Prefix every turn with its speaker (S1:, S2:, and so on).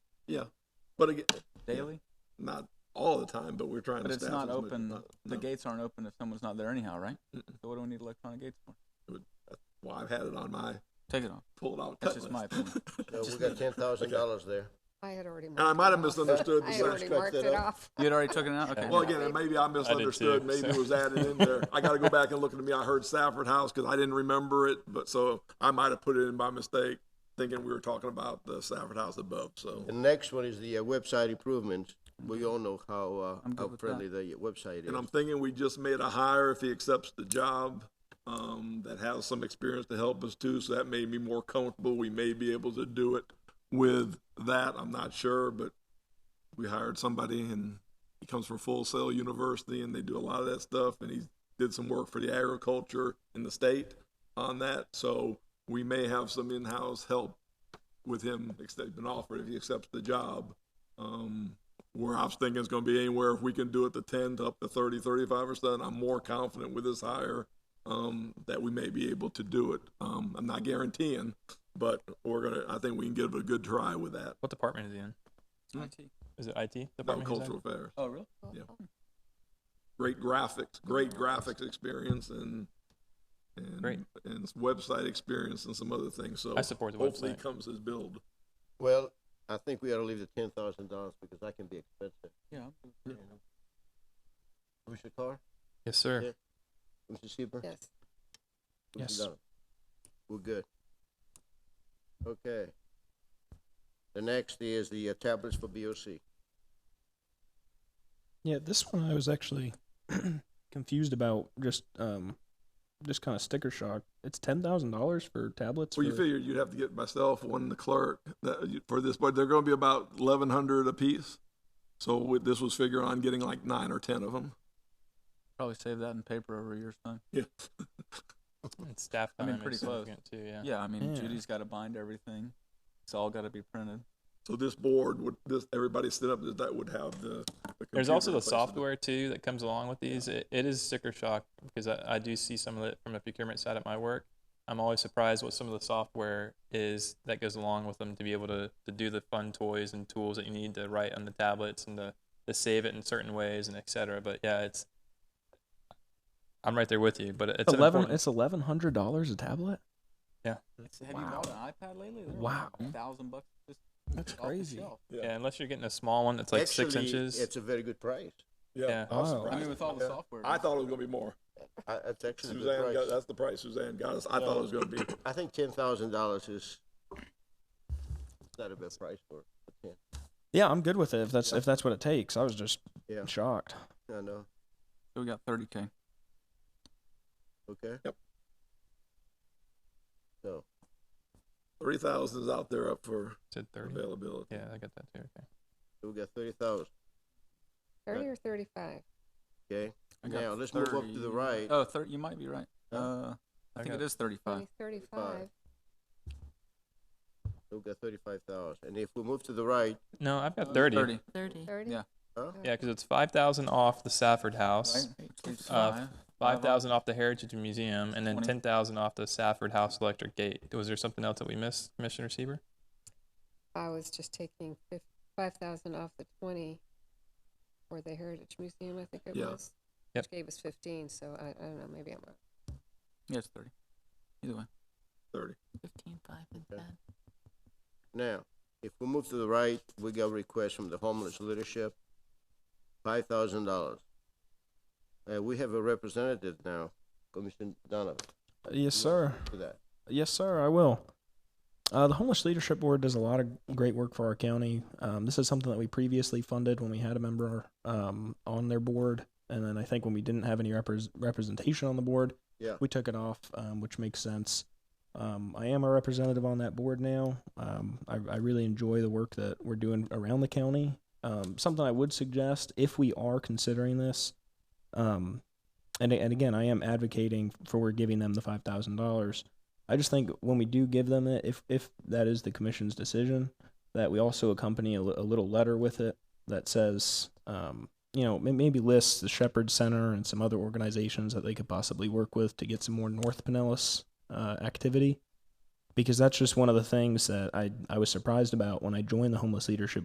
S1: Yeah, but again,
S2: daily.
S1: not all the time. But we're trying
S2: But
S1: to.
S2: it's
S1: staff
S2: not
S1: as much as
S2: open.
S1: not-
S2: The
S1: no.
S2: gates aren't open if someone's not there anyhow, right?
S1: Mm-mm.
S2: So what do we need electronic gates for?
S1: Well, I've had it on my
S2: Take it off.
S1: pulled out.
S2: That's
S1: cut list.
S2: just my opinion.
S3: No, Uh, we got ten thousand dollars there.
S4: I had already.
S1: I
S4: marked
S1: might
S4: it
S1: have
S4: off.
S1: misunderstood the
S4: I had already
S3: Scratch
S4: marked
S3: that
S4: it
S3: up.
S4: off.
S2: You had already taken it out. Okay.
S1: Well, again, and maybe I misunderstood.
S5: too,
S1: maybe it
S5: so.
S1: was added in there. I got to go back and look at me. I heard Safford House because I didn't remember it, but so I might have put it in by mistake, thinking we were talking about the Safford House above. So
S3: The next one is the uh, website improvements. We all know how,
S2: I'm
S3: uh,
S2: good
S3: how
S2: with that.
S3: friendly the website
S1: And I'm
S3: is.
S1: thinking we just made a hire if he accepts the job, um, that has some experience to help us too, so that made me more comfortable. We may be able to do it with that, I'm not sure, but we hired somebody and he comes from Full Sail University and they do a lot of that stuff and he did some work for the agriculture in the state on that, so we may have some in-house help with him, if they've been offered, if he accepts the job. Um, where I was thinking it's going to be anywhere if we can do it to 10 to up to 30, 35 percent. I'm more confident with this hire um, that we may be able to do it. Um, I'm not guaranteeing, but we're gonna. I think we can give it a good try with that.
S5: What department is he in? Is it IT
S1: About
S5: department? he's in?
S1: cultural affairs,
S2: Oh, really?
S1: Yeah. great graphics, great graphics experience, and and
S5: Great.
S1: and website experience and some other things. So
S5: I support the
S1: hopefully
S5: website.
S1: he comes his build.
S3: Well, I think we ought to leave the ten thousand dollars because that can be expensive.
S2: Yeah.
S3: you know. Commissioner Carr,
S5: Yes, sir.
S3: Yeah. Commissioner Seaver?
S4: Yes.
S3: Commissioner
S5: Yes.
S3: Donovan? We're good. Okay. The next is the uh, tablets for BOC.
S6: Yeah, this one I was actually confused about. Just um, just kind of sticker shock. It's ten thousand dollars for tablets.
S1: Well, you
S6: for-
S1: figured you'd have to get myself one, the clerk that, you- for this, but they're going to be about eleven hundred apiece. So with, this was figuring on getting like nine or ten of them.
S2: Probably save that in paper over a year's time.
S1: Yeah.
S5: And staff
S2: I
S5: time
S2: mean, pretty
S5: is
S2: close.
S5: significant too. Yeah.
S2: Yeah, I mean,
S6: Yeah.
S2: Judy's got to bind everything. It's all got to be printed.
S1: So this board would this everybody set up that that would have the. the
S5: There's
S1: computer in
S5: also the
S1: place of
S5: software too that comes along with these. It, it is sticker shock because I, I do see some of it from the procurement side at my work. I'm always surprised what some of the software is that goes along with them to be able to, to do the fun toys and tools that you need to write on the tablets and to, to save it in certain ways and et cetera. But yeah, it's I'm right there with you. But it's an
S6: eleven.
S5: important-
S6: It's eleven hundred dollars a tablet.
S2: have you bought an iPad lately? They're
S6: Wow.
S2: Like thousand bucks just
S6: That's
S2: off the
S6: crazy.
S2: shelf.
S1: the-
S5: yeah,
S1: Yeah,
S5: unless you're getting a small one that's like six
S3: Actually,
S5: inches.
S3: It's a very good price.
S1: yeah.
S5: yeah.
S1: I was
S6: Wow.
S1: surprised.
S2: Oh, I mean, with all the
S1: Yeah.
S2: software.
S1: I thought it was going to be more.
S3: I, that's actually a
S1: Suzanne, got,
S3: good price.
S1: that's the price Suzanne got us. I thought it was going to be.
S3: I think ten thousand dollars is not a bad price for it. ten.
S6: Yeah, I'm good with it. If that's if that's what it takes, I was just
S3: Yeah.
S6: shocked.
S3: I know.
S2: So we got 30K.
S3: Okay.
S1: Yep.
S3: So
S1: Three thousand is out there up for
S5: Said thirty.
S1: availability.
S5: Yeah, I got that too. Okay.
S3: so we got thirty thousand.
S4: Thirty or thirty-five.
S3: Okay.
S2: I got
S3: Now, let's move up to the
S2: 30.
S3: right.
S2: Oh, 30, you might be right.
S3: Yeah.
S2: Uh, I
S5: I
S2: think it
S5: got-
S2: is 35.
S4: Maybe Thirty-five.
S3: So we got thirty-five thousand. And if we move to the right,
S5: No, I've got Uh, thirty.
S2: 30.
S7: Thirty.
S4: Thirty. Oh.
S2: Yeah.
S3: huh?
S5: Yeah, because it's five thousand off the Safford House.
S2: Right? Which leaves
S5: Uh,
S2: five.
S5: Five thousand off the Heritage Museum, and then
S2: 20.
S5: ten thousand off the Safford House Electric Gate. Was there something else that we missed, Commissioner Sieber?
S4: I was just taking fif- five thousand off the twenty for the Heritage Museum, I think it
S1: Yeah.
S4: was.
S5: Yep.
S4: Which gave us fifteen, so I, I don't know, maybe I'm wrong.
S2: Yeah, it's 30. Either way.
S1: Thirty.
S7: Fifteen five and
S3: Okay.
S7: ten.
S3: Now, if we move to the right, we got requests from the homeless leadership, five thousand dollars. Uh, we have a representative now, Commissioner Donovan,
S6: Yes, sir.
S3: for that.
S6: Yes, sir, I will. Uh, the Homeless Leadership Board does a lot of great work for our county. Um, this is something that we previously funded when we had a member um, on their board. And then I think when we didn't have any repres representation on the board,
S3: Yeah.
S6: we took it off, um, which makes sense. Um, I am a representative on that board now. Um, I, I really enjoy the work that we're doing around the county. Um, something I would suggest if we are considering this, um, and, and again, I am advocating for giving them the five thousand dollars. I just think when we do give them it, if if that is the commission's decision, that we also accompany a, li- a little letter with it that says, um, you know, may- maybe lists the Shepherd Center and some other organizations that they could possibly work with to get some more North Pinellas uh, activity, because that's just one of the things that I I was surprised about when I joined the homeless leadership